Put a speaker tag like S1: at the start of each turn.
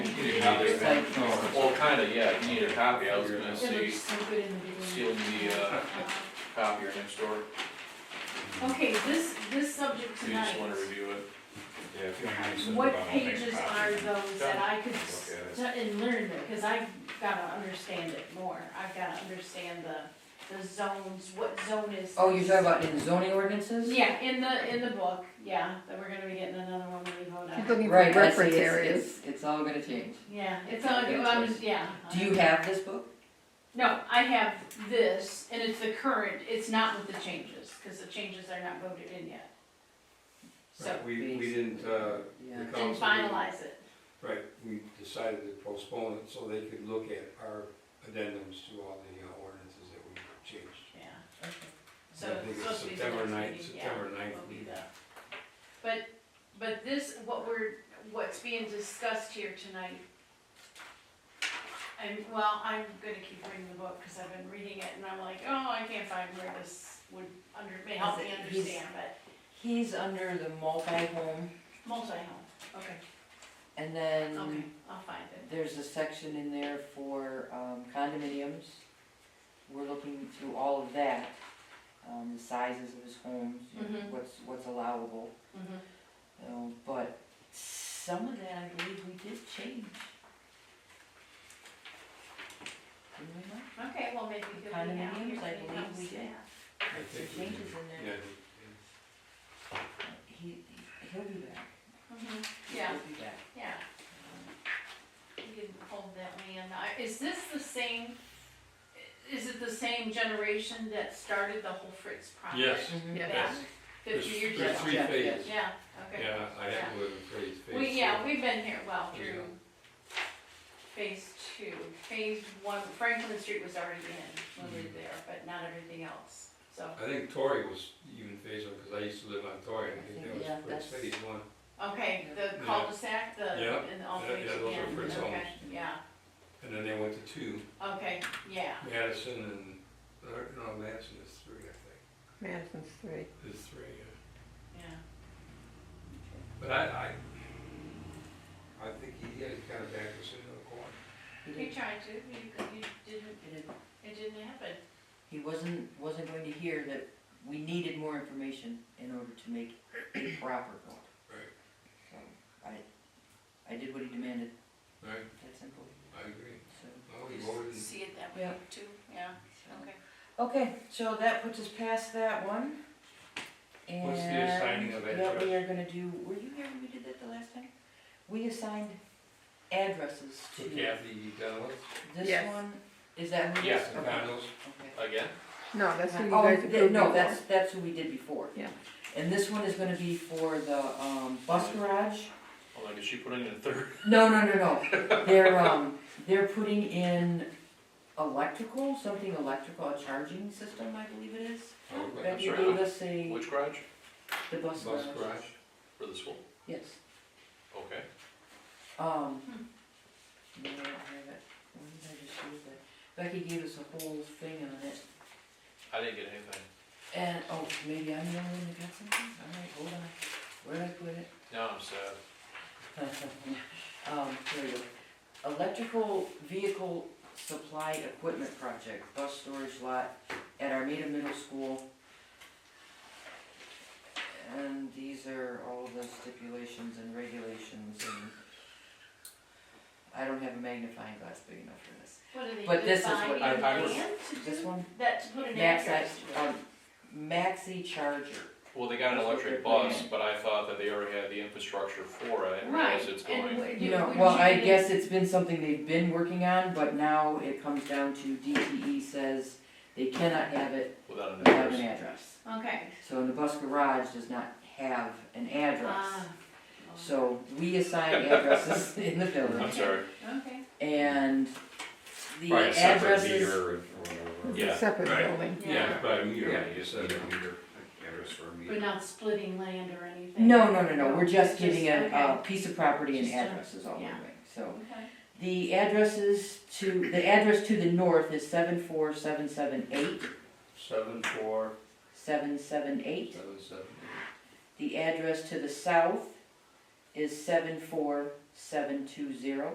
S1: you need
S2: It's
S1: it.
S2: like-
S1: Well, kinda, yeah, if you need a copy, I was gonna
S2: It
S1: see,
S2: looks so good in the beginning.
S1: stealing the, uh, copier next door,
S2: Okay, this, this subject
S1: if you just wanna
S2: tonight,
S1: review it.
S3: Yeah, if you don't mind, send it
S2: what
S3: around, I'll make a
S2: pages
S3: copy.
S2: are those that I could, s-
S3: Okay,
S2: and learn them, cause I've gotta understand it more, I've gotta understand the, the zones, what zone is.
S4: Oh, you're talking about in zoning ordinances?
S2: Yeah, in the, in the book, yeah, that we're gonna be getting another one when we go
S5: Keep
S2: down.
S5: looking for
S4: Right, that's,
S5: reference
S4: it's,
S5: areas.
S4: it's, it's all gonna change.
S2: Yeah, it's all, good, I'm, just- yeah.
S4: Do you have this book?
S2: No, I have this, and it's the current, it's not with the changes, cause the changes are not voted in yet. So,
S6: Right, We, we didn't, uh, the
S4: Yeah.
S2: and
S6: council. didn't-
S2: finalize it.
S6: Right, we decided to postpone it so they could look at our addendums to all the uh, ordinances that we changed.
S2: Yeah,
S4: Okay.
S2: so
S6: I think
S2: it's
S6: it's
S2: supposed to be the
S6: September
S2: next
S6: ninth,
S2: meeting, yeah,
S6: September ninth
S2: will be
S6: meeting.
S2: the. But, but this, what we're, what's being discussed here tonight, I'm, well, I'm gonna keep reading the book, cause I've been reading it, and I'm like, oh, I can't find where this would under, may help me
S4: Is it- he's-
S2: understand, but
S4: He's under the multi-home,
S2: multi-home, okay,
S4: and
S2: okay,
S4: then
S2: I'll find it.
S4: there's a section in there for um, condominiums. We're looking through all of that, um, the sizes of his homes, you know,
S2: Mhm.
S4: what's, what's allowable. Mm-hmm. you know, But some of that, I believe we did change. Didn't we, Mike?
S2: Okay, well, maybe he'll be out here.
S4: Condominiums, I
S2: when he
S4: believe
S2: comes
S4: we did.
S2: down.
S6: I
S4: The
S6: think we
S4: changes
S6: did.
S4: in
S6: Yeah,
S4: there,
S6: I think-
S4: he, he'll be back.
S2: Mhm,
S4: He'll
S2: Yeah,
S4: be back.
S2: yeah. You can hold that man. I- Is this the same, is it the same generation that started the whole Fritz
S6: Yes.
S2: project?
S4: Mhm.
S5: Yeah.
S2: Back
S6: Yes.
S2: fifty
S6: There's-
S2: years
S6: There's
S2: ago?
S6: three
S4: Yeah, yeah.
S6: phases.
S2: Yeah, okay.
S6: Yeah, I have to live in phase, phase.
S2: We, yeah,
S6: two.
S2: we've been here, well,
S6: Yeah.
S2: through phase two. Phase one, Franklin Street was already in when we
S6: Mm-hmm.
S2: were there, but not everything else, so,
S6: I think Torrey was even phase one, cause I used to live on Torrey, and I
S4: I
S6: think
S4: think, yeah,
S6: that was
S4: that's-
S6: Fritz phase one.
S2: okay, the
S6: Yeah.
S2: cul-de-sac, the,
S6: Yeah,
S2: and all
S6: yeah,
S2: three
S6: yeah, those are
S2: again,
S6: Fritz
S2: okay,
S6: homes.
S2: yeah,
S6: And then they went to two,
S2: okay, yeah.
S6: Madison and, or, no, Madison is three, I
S5: Madison's three.
S6: think, is three, yeah.
S2: Yeah,
S6: But I, I, I think he had kind of backed us into a corner.
S4: He
S2: he
S4: didn't-
S2: tried to, you, you didn't,
S4: he didn't-
S2: it didn't happen.
S4: He wasn't, wasn't going to hear that we needed more information in order to make a proper vote.
S6: Right.
S4: So, I, I did what he demanded,
S6: Right,
S4: that simple,
S6: I agree.
S4: so.
S2: Oh,
S6: Well, we voted,
S2: See it that way
S4: Yeah.
S2: too, yeah,
S4: so.
S2: okay.
S4: Okay, so that puts us past that one.
S6: What's the
S4: And
S6: assigning of
S4: What we are gonna do, were you here when we did that the last time? We assigned addresses
S6: for
S4: to
S6: Kathy Dunlap,
S4: this
S5: Yes.
S4: one, is that who it is?
S1: Yes.
S6: the
S4: Okay,
S6: condos,
S4: okay.
S1: Again?
S5: No, that's who you
S4: Oh,
S5: guys
S4: th-
S5: approved.
S4: no,
S5: before.
S4: that's, that's who we did before.
S5: Yeah.
S4: And this one is gonna be for the, um, bus garage?
S1: Hold on, did she put in a third?
S4: No, no, no, no, they're, um, they're putting in electrical, something electrical, a charging system, I believe it is.
S6: okay,
S4: That you
S1: sorry,
S4: gave us a,
S1: Which garage?
S4: the bus
S6: Oh, bus
S4: garage.
S6: garage.
S1: For the school?
S4: Yes,
S1: Okay.
S4: um.
S2: Hmm.
S4: no, I don't have it. Why did I just use that? Becky gave us a whole thing on it,
S1: I didn't get anything.
S4: and, oh, maybe I'm the only one that got something, alright, hold on, where did I put it?
S1: Now I'm sad.
S4: Um, here we go. Electrical vehicle supply equipment project, bus storage lot at Armada Middle School. And these are all the stipulations and regulations and I don't have a magnifying glass big enough for this.
S2: What are they,
S4: But this is what
S2: dividing
S1: I- I
S2: land
S1: was-
S2: to
S4: This
S2: do
S4: one,
S2: that, to put an
S4: maxi,
S2: address to it?
S4: um, maxi charger.
S1: Well, they got an
S4: That's what
S1: electric
S4: they're putting
S1: bus, but I thought that they already had the infrastructure for it,
S2: Right,
S1: because it's
S2: and
S1: going.
S2: would
S4: You
S2: you,
S4: know,
S2: would
S4: well,
S2: you
S4: I
S2: then-
S4: guess it's been something they've been working on, but now it comes down to DTE says they cannot have it
S1: Without an
S4: without an
S1: address.
S4: address.
S2: Okay.
S4: So the bus garage does not have an address.
S2: Ah, well,
S4: uh, So we assign addresses in the
S1: I'm
S4: building
S1: sorry,
S2: Okay.
S4: and the
S3: Probably a separate
S4: addresses,
S3: meter or whatever.
S1: Yeah.
S5: Separate
S6: Right.
S5: building.
S2: Yeah.
S6: Yeah, but you
S3: Yeah,
S6: know,
S3: you just
S6: just a
S3: need a
S6: meter.
S3: meter, address for a meter.
S2: But not splitting land or anything?
S4: no, no, no, no, we're just giving a, a
S2: okay,
S4: piece of property and
S2: Just a-
S4: addresses all the way,
S2: yeah.
S4: so.
S2: Okay,
S4: The addresses to, the address to the north is seven four seven seven eight,
S6: Seven, four,
S4: seven seven eight.
S6: seven, seven.
S4: The address to the south is seven four seven two zero.